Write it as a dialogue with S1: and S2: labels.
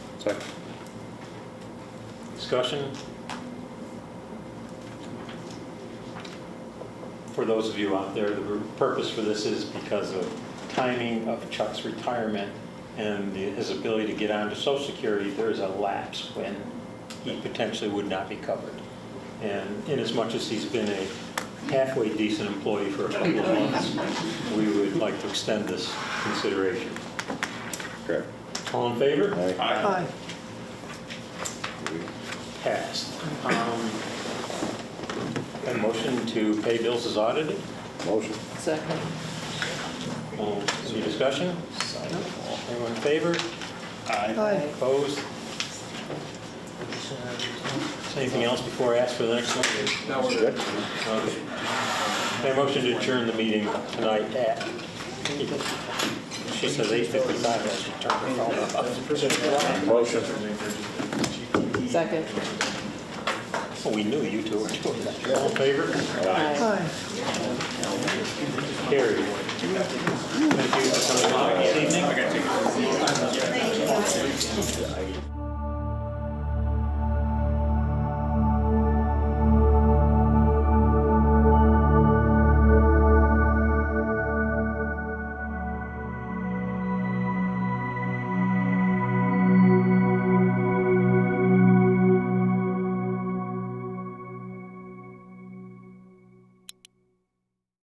S1: Second.
S2: Discussion? For those of you out there, the purpose for this is because of timing of Chuck's retirement and the- his ability to get onto social security, there is a lapse when he potentially would not be covered. And inasmuch as he's been a halfway decent employee for a couple of months, we would like to extend this consideration.
S1: Correct.
S2: All in favor?
S3: Aye.
S2: Passed. Um, A motion to pay bills is audited.
S1: Motion.
S3: Second.
S2: Will- Any discussion? Anyone in favor?
S3: Aye.
S2: Opposed? Is Anything else before I ask for the next one?
S1: That's good.
S2: Okay. A motion to adjourn the meeting tonight at, she says 8:55, I should turn her phone off.
S1: Motion.
S3: Second.
S2: Well, Oh, We knew you two were doing that. All in favor?
S3: Aye.
S2: Carried. Thank you for coming along this evening.